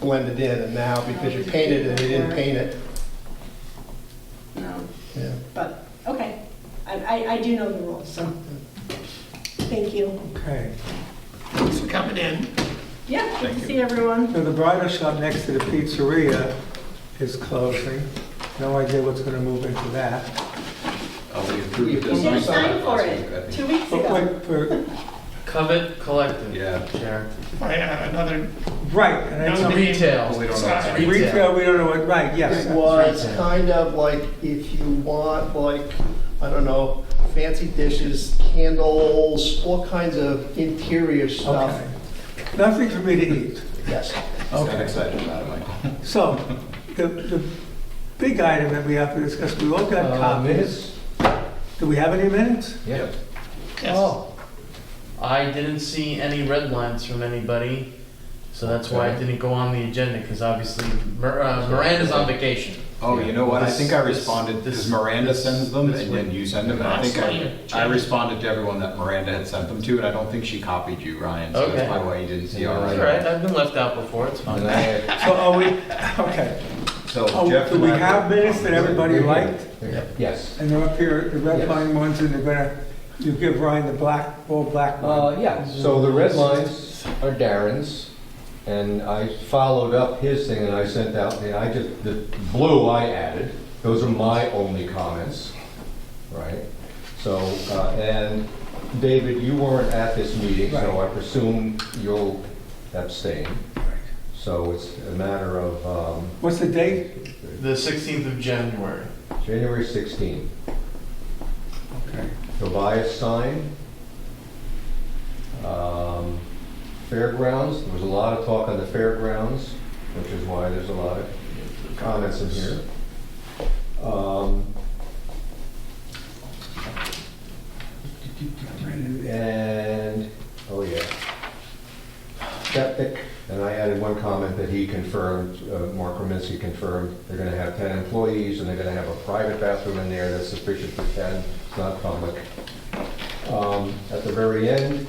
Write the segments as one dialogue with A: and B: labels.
A: blended in, and now because you painted it, you didn't paint it.
B: No,
A: Yeah.
B: but, okay. I, I, I do know the rules, so. Thank you.
C: Okay,
D: Thanks for coming in.
B: Yeah, good
D: Thank
B: to
D: you.
B: see everyone.
C: so the bridal shop next to the pizzeria is closing. No idea what's gonna move into that.
E: Oh, we
A: We
E: approved
B: You
E: this.
B: did
A: There's
B: sign
E: last
B: for
E: week, I
B: it
E: think.
B: two weeks
C: But
B: ago.
C: wait, for-
F: Covet Collective.
E: Yeah.
F: Sharon.
D: I have another,
C: Right, and
D: No
C: it's,
F: Some
E: Well, we
F: retail.
E: don't know.
F: Sorry.
C: retail, we don't know what, right, yes.
A: It was kind of like if you want like, I don't know, fancy dishes, candles, all kinds of interior stuff.
C: Okay. Nothing for me to eat.
A: Yes.
E: Not excited about it, Michael.
C: So, the, the big item that we have to discuss, we all
E: Uh,
C: got copies. Do we have any minutes?
F: Yep.
C: Oh.
D: yes,
F: I didn't see any red lines from anybody, so that's why I didn't go on the agenda, because obviously Mir- uh, Miranda's on vacation.
E: Oh, you know what? I think I
F: This-
E: responded,
F: this-
E: because Miranda
F: this-
E: sends them
F: this
E: and then
F: week.
E: you send them. And I
D: Last
E: think
D: year,
E: I, I
D: January.
E: responded to everyone that Miranda had sent them to, and I don't think she copied you, Ryan. So
F: Okay.
E: that's probably why you didn't see
F: All
E: our
F: right,
E: writing.
F: I've been left out before, it's
E: And
F: fine.
E: I-
C: So are we, okay.
E: So
C: Oh,
E: Jeff.
C: do
E: and
C: we
E: I-
C: have minutes that everybody liked?
G: Yes.
C: And they're up here, the red line ones, and they're gonna, you give Ryan the black, all black
G: Uh,
C: one.
G: yeah, so the red lines are Darren's, and I followed up his thing and I sent out, the I just, the blue I added. Those are my only comments, right? So, uh, and David, you weren't at this meeting, so I presume you'll abstain. So it's a matter of, um,
C: What's the date?
F: The 16th of January.
G: January 16.
C: Okay.
G: Tobias sign. Um, Fairgrounds, there was a lot of talk on the fairgrounds, which is why there's a lot of comments in here. Um, And, oh yeah. Septic, and I added one comment that he confirmed, uh, Mark Rominski confirmed, they're gonna have ten employees, and they're gonna have a private bathroom in there that's sufficient for ten, it's not public. Um, At the very end,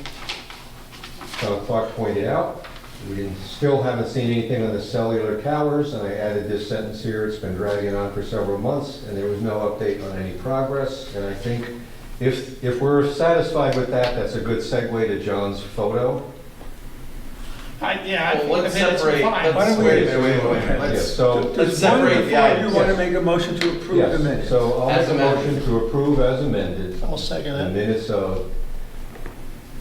G: John Clark pointed out, we didn't, still haven't seen anything on the cellular towers, and I added this sentence here, it's been dragging on for several months, and there was no update on any progress, and I think if, if we're satisfied with that, that's a good segue to John's photo.
D: I, yeah, I
F: Well,
D: think the
F: let's
D: minutes were
F: separate-
D: fine.
C: Why don't we-
G: Wait a minute, wait a minute, wait a minute.
C: Let's-
G: Yeah, so-
C: Does
F: Let's
C: one
F: separate the
C: before you
F: items.
C: wanna make a motion to approve the
G: Yes,
C: minutes?
G: so I'll
F: As
G: make a
F: amended.
G: motion to approve as amended,
A: I'll second
G: the
A: that.
G: minutes of uh,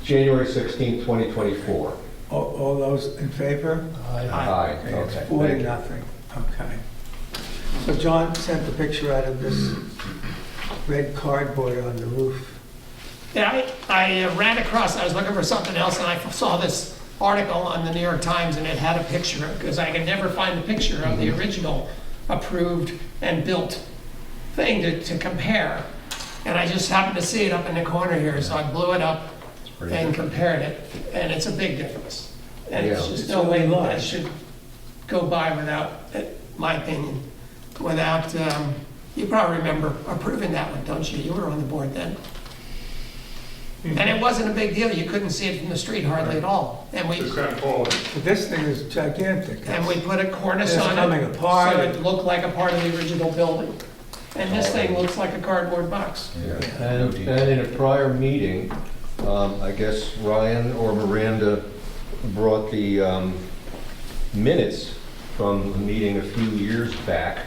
G: January 16, 2024.
C: All, all those in favor?
A: Aye.
G: Aye,
C: Okay, it's
G: okay.
C: four to
G: thank you.
C: nothing, okay. So John sent the picture out of this red cardboard on the roof.
D: Yeah, I, I uh, ran across, I was looking for something else, and I saw this article on the New York Times, and it had a picture, because I could never find the picture of
C: Mm-hmm.
D: the original approved and built thing to, to compare. And I just happened to see it up in the corner here, so I blew it up
G: pretty
D: and
G: different.
D: compared it, and it's a big difference. And it's
G: Yeah.
D: just
C: It's
D: no way
C: really
D: that I
C: large.
D: should go by without, uh, my opinion, without, um, you probably remember approving that one, don't you? You were on the board then. And it wasn't a big deal, you couldn't see it from the street hardly at all. And we,
C: But this thing is gigantic.
D: and we put a cornice
C: It's
D: on it.
C: coming apart.
D: So it looked like a part of the original building. And this thing looks like a cardboard box.
G: Yeah. And and in a prior meeting, um, I guess Ryan or Miranda brought the um, minutes from a meeting a few years back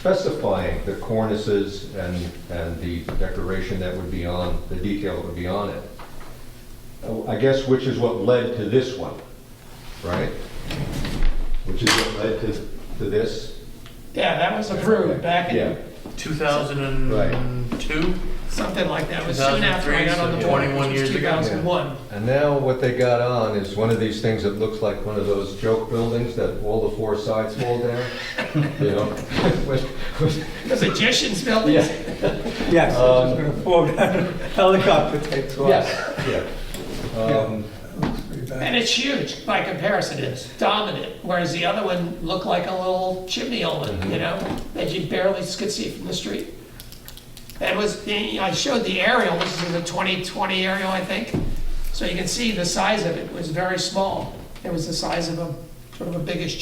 G: specifying the cornices and, and the decoration that would be on, the detail that would be on it. Oh, I guess which is what led to this one, right? Which is what led to, to this?
D: Yeah, that was approved back
G: Yeah.
D: in,
F: 2002?
D: something like that, it was soon after I
F: 2003,
D: got on the
F: so
D: board,
F: 21
D: which was
F: years ago.
D: 2001.
G: And now what they got on is one of these things that looks like one of those joke buildings that all the four sides fall down. You know?
D: The magician's building.
G: Yeah.
C: Yes,
G: Um,
C: it's gonna fall down, helicopter takes off.
G: Yes, yeah. Um,
C: Looks pretty bad.
D: And it's huge by comparison, it's dominant, whereas the other one looked like a little chimney oven, you know, that you barely could see from the street. It was, I showed the aerial, this is the 2020 aerial, I think, so you can see the size of it was very small. It was the size of a, sort of a biggish